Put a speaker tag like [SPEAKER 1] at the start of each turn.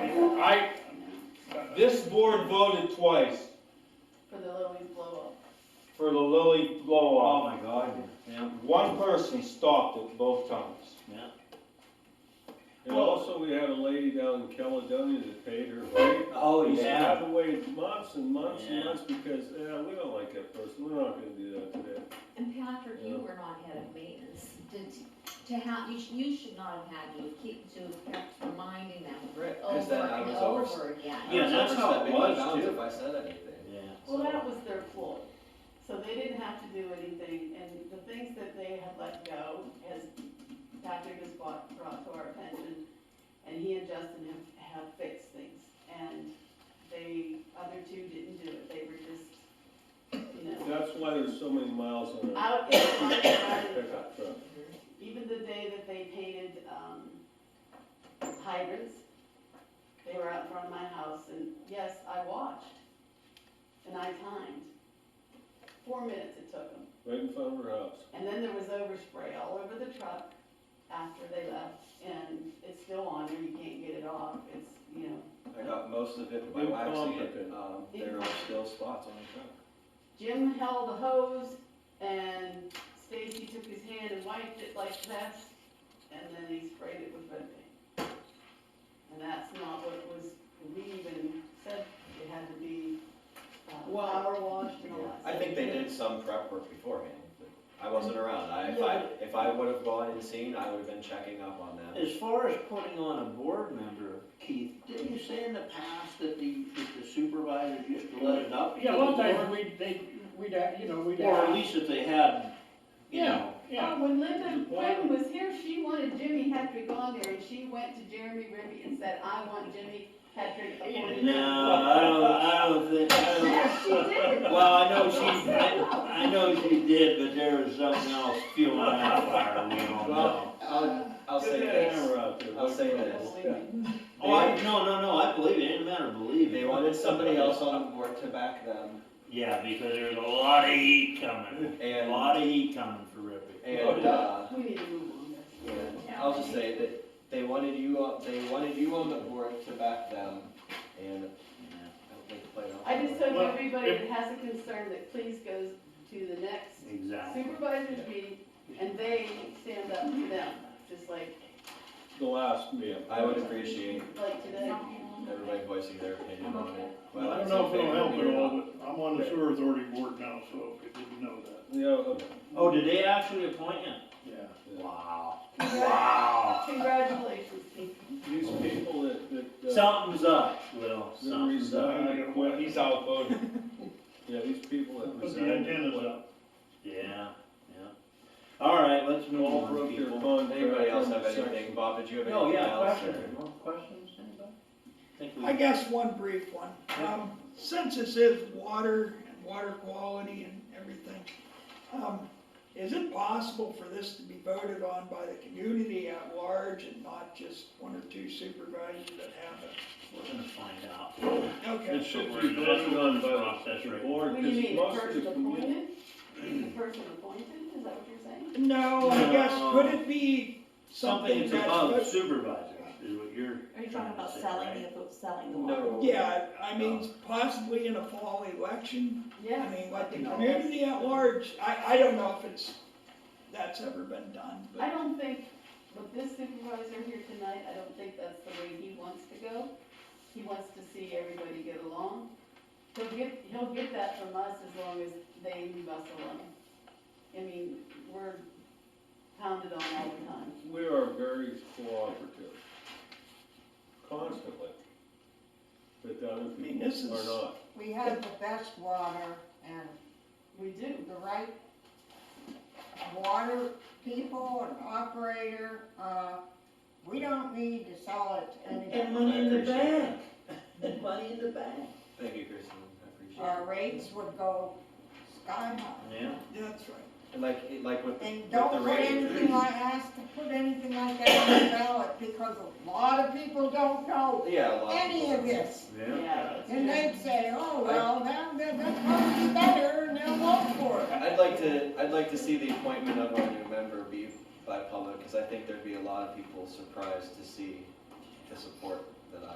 [SPEAKER 1] I, this board voted twice
[SPEAKER 2] For the Little League blow
[SPEAKER 1] for the Lilly blow
[SPEAKER 3] Oh,
[SPEAKER 1] off.
[SPEAKER 3] my God, yeah.
[SPEAKER 1] One person stopped it both times.
[SPEAKER 4] And also, we had a lady down in Caledonia that paid her fee.
[SPEAKER 3] Oh,
[SPEAKER 4] We
[SPEAKER 3] yeah.
[SPEAKER 4] had to wait months and months and
[SPEAKER 3] Yeah.
[SPEAKER 4] months because, yeah, we don't like that person, we're not gonna do that today.
[SPEAKER 5] And Patrick, you were not head of maintenance, did, to have, you, sh- you should not have had to keep, to have kept reminding them
[SPEAKER 6] Right, because
[SPEAKER 5] over
[SPEAKER 6] then I
[SPEAKER 5] and
[SPEAKER 6] was over.
[SPEAKER 5] over again.
[SPEAKER 3] Yeah, that's how it was, too.
[SPEAKER 6] If I said anything.
[SPEAKER 3] Yeah.
[SPEAKER 2] Well, that was their ploy. So they didn't have to do anything, and the things that they had let go, as Patrick has brought, brought to our attention, and he and Justin have, have fixed things, and they, other two didn't do it, they were just, you know,
[SPEAKER 4] That's why there's so many miles on our
[SPEAKER 2] out in the yard,
[SPEAKER 4] pickup truck.
[SPEAKER 2] even the day that they painted, um, hydrants, they were out in front of my house, and yes, I watched, and I timed. Four minutes it took them,
[SPEAKER 4] right in front of her house.
[SPEAKER 2] and then there was overspray all over the truck after they left, and it's still on there, you can't get it off, it's, you know.
[SPEAKER 6] I got most of it, but my wife's
[SPEAKER 4] Incompetent.
[SPEAKER 6] hand, um, there are still spots on the truck.
[SPEAKER 2] Jim held the hose, and Stacy took his hand and wiped it like this, and then he sprayed it with red paint. And that's not what was, we even said it had to be, uh,
[SPEAKER 6] Well,
[SPEAKER 2] power washed and all that.
[SPEAKER 6] I
[SPEAKER 2] stuff.
[SPEAKER 6] think they did some prep work beforehand, but I wasn't around, I, if I, if I would've gone and seen, I would've been checking up on them.
[SPEAKER 3] As far as putting on a board member, Keith, didn't you say in the past that the, that the supervisors used to let it up?
[SPEAKER 7] Yeah, a
[SPEAKER 3] to
[SPEAKER 7] lot of
[SPEAKER 3] the
[SPEAKER 7] times
[SPEAKER 3] board?
[SPEAKER 7] we'd, they, we'd, uh, you know, we'd.
[SPEAKER 3] Or at
[SPEAKER 7] ask-
[SPEAKER 3] least if they had, you
[SPEAKER 7] Yeah,
[SPEAKER 3] know.
[SPEAKER 7] Yeah,
[SPEAKER 2] Uh, When Linda Quinn was here, she wanted Jimmy Hetrick on there, and she went to Jeremy Ribby and said, I want Jimmy Hetrick appointed.
[SPEAKER 3] No, I don't, I don't think, I
[SPEAKER 2] Yes, she
[SPEAKER 3] don't.
[SPEAKER 2] did.
[SPEAKER 3] Well, I know she, I, I know she did, but there was something else fueling that fire, we don't know.
[SPEAKER 4] Well,
[SPEAKER 6] Um, I'll, I'll say
[SPEAKER 4] Get that
[SPEAKER 6] this,
[SPEAKER 4] hammer out there.
[SPEAKER 6] I'll say
[SPEAKER 2] I
[SPEAKER 6] this,
[SPEAKER 2] believe it.
[SPEAKER 3] Oh, I, no, no, no, I believe it, it didn't matter, believe
[SPEAKER 6] they
[SPEAKER 3] it.
[SPEAKER 6] wanted somebody else on the board to back them,
[SPEAKER 3] Yeah, because there was a lot of heat coming, a
[SPEAKER 6] and,
[SPEAKER 3] lot of heat coming for Rippy.
[SPEAKER 6] and, uh,
[SPEAKER 2] We need to move on this.
[SPEAKER 6] Yeah, I'll just say that they wanted you on, they wanted you on the board to back them, and I don't think it played out.
[SPEAKER 2] I just
[SPEAKER 6] that way.
[SPEAKER 2] hope everybody that has a concern that please goes to the next
[SPEAKER 3] Exactly.
[SPEAKER 2] supervisor's meeting and they stand up to them, just like,
[SPEAKER 4] The last meal.
[SPEAKER 6] I would appreciate
[SPEAKER 2] like today.
[SPEAKER 6] everybody voicing their opinion on it.
[SPEAKER 7] I don't know if it'll help at all, but I'm on the sewer authority board now, so if you didn't know that,
[SPEAKER 4] You know,
[SPEAKER 3] Oh, did they actually appoint you?
[SPEAKER 7] yeah.
[SPEAKER 3] Wow.
[SPEAKER 2] Congra- Congratulations, Pete.
[SPEAKER 4] these people that, that. uh,
[SPEAKER 3] Something's up, Will,
[SPEAKER 4] that
[SPEAKER 3] something's up.
[SPEAKER 4] resign or quit,
[SPEAKER 1] He's outvoted.
[SPEAKER 4] Yeah, these people that
[SPEAKER 7] Put
[SPEAKER 4] resign.
[SPEAKER 7] the antennas up.
[SPEAKER 3] Yeah, yeah. All right, let's move
[SPEAKER 4] All
[SPEAKER 3] on,
[SPEAKER 4] broke their
[SPEAKER 3] people.
[SPEAKER 4] contract.
[SPEAKER 6] Anybody else have
[SPEAKER 4] Section-
[SPEAKER 6] anything? Bob, did you have
[SPEAKER 3] Oh,
[SPEAKER 6] anything
[SPEAKER 3] yeah,
[SPEAKER 6] else?
[SPEAKER 3] questions,
[SPEAKER 6] or-
[SPEAKER 3] more questions, anybody? Think we-
[SPEAKER 8] I guess one brief one. Um, since this is water and water quality and everything, um, is it possible for this to be voted on by the community at large and not just one or two supervisors that
[SPEAKER 3] We're gonna find out.
[SPEAKER 8] have it?
[SPEAKER 4] It
[SPEAKER 8] Okay.
[SPEAKER 4] should be voted on by
[SPEAKER 3] Process
[SPEAKER 4] the
[SPEAKER 3] right
[SPEAKER 4] board,
[SPEAKER 2] What do you
[SPEAKER 4] because
[SPEAKER 2] mean, the
[SPEAKER 4] most of
[SPEAKER 2] person
[SPEAKER 4] the community.
[SPEAKER 2] appointed? The person appointed, is that what you're saying?
[SPEAKER 8] No, I guess, could it be
[SPEAKER 3] Something
[SPEAKER 8] something
[SPEAKER 3] that's above
[SPEAKER 8] that's,
[SPEAKER 3] supervisors is what you're.
[SPEAKER 9] Are you talking about
[SPEAKER 3] Say,
[SPEAKER 9] selling
[SPEAKER 3] right?
[SPEAKER 9] the, selling the water?
[SPEAKER 6] No.
[SPEAKER 8] yeah, I mean, possibly in a fall election? I
[SPEAKER 2] Yes.
[SPEAKER 8] mean, let the
[SPEAKER 2] think all
[SPEAKER 8] community
[SPEAKER 2] that's-
[SPEAKER 8] at large, I, I don't know if it's, that's ever been done, but.
[SPEAKER 2] I don't think, with this supervisor here tonight, I don't think that's the way he wants to go. He wants to see everybody get along. He'll get, he'll get that from us as long as they leave us alone. I mean, we're pounded on all the time.
[SPEAKER 4] We are very cooperative, constantly. But the other
[SPEAKER 8] mean, this
[SPEAKER 4] people are
[SPEAKER 8] is-
[SPEAKER 4] not.
[SPEAKER 10] We have the best water and
[SPEAKER 2] We do.
[SPEAKER 10] the right water people and operator, uh, we don't need to sell it to
[SPEAKER 3] And
[SPEAKER 10] anybody.
[SPEAKER 3] money in the
[SPEAKER 6] Appreciate
[SPEAKER 3] bank, and money in the bank.
[SPEAKER 6] Thank you, Kristen, I appreciate
[SPEAKER 10] Our
[SPEAKER 6] it.
[SPEAKER 10] rates would go sky high.
[SPEAKER 3] Yeah.
[SPEAKER 8] That's right.
[SPEAKER 6] And like, it- like with,
[SPEAKER 10] And
[SPEAKER 6] with
[SPEAKER 10] don't
[SPEAKER 6] the
[SPEAKER 10] put
[SPEAKER 6] rate,
[SPEAKER 10] anything like, ask to put anything like that on the ballot, because a lot of people don't know
[SPEAKER 6] yeah, a lot.
[SPEAKER 10] any
[SPEAKER 6] people-
[SPEAKER 10] of this.
[SPEAKER 2] Yeah. that's
[SPEAKER 10] And
[SPEAKER 2] true.
[SPEAKER 10] they'd say, oh, well, that, that, that's supposed to be better, and they'll vote for it.
[SPEAKER 6] I'd like to, I'd like to see the appointment of our new member be by public, because I think there'd be a lot of people surprised to see the support that I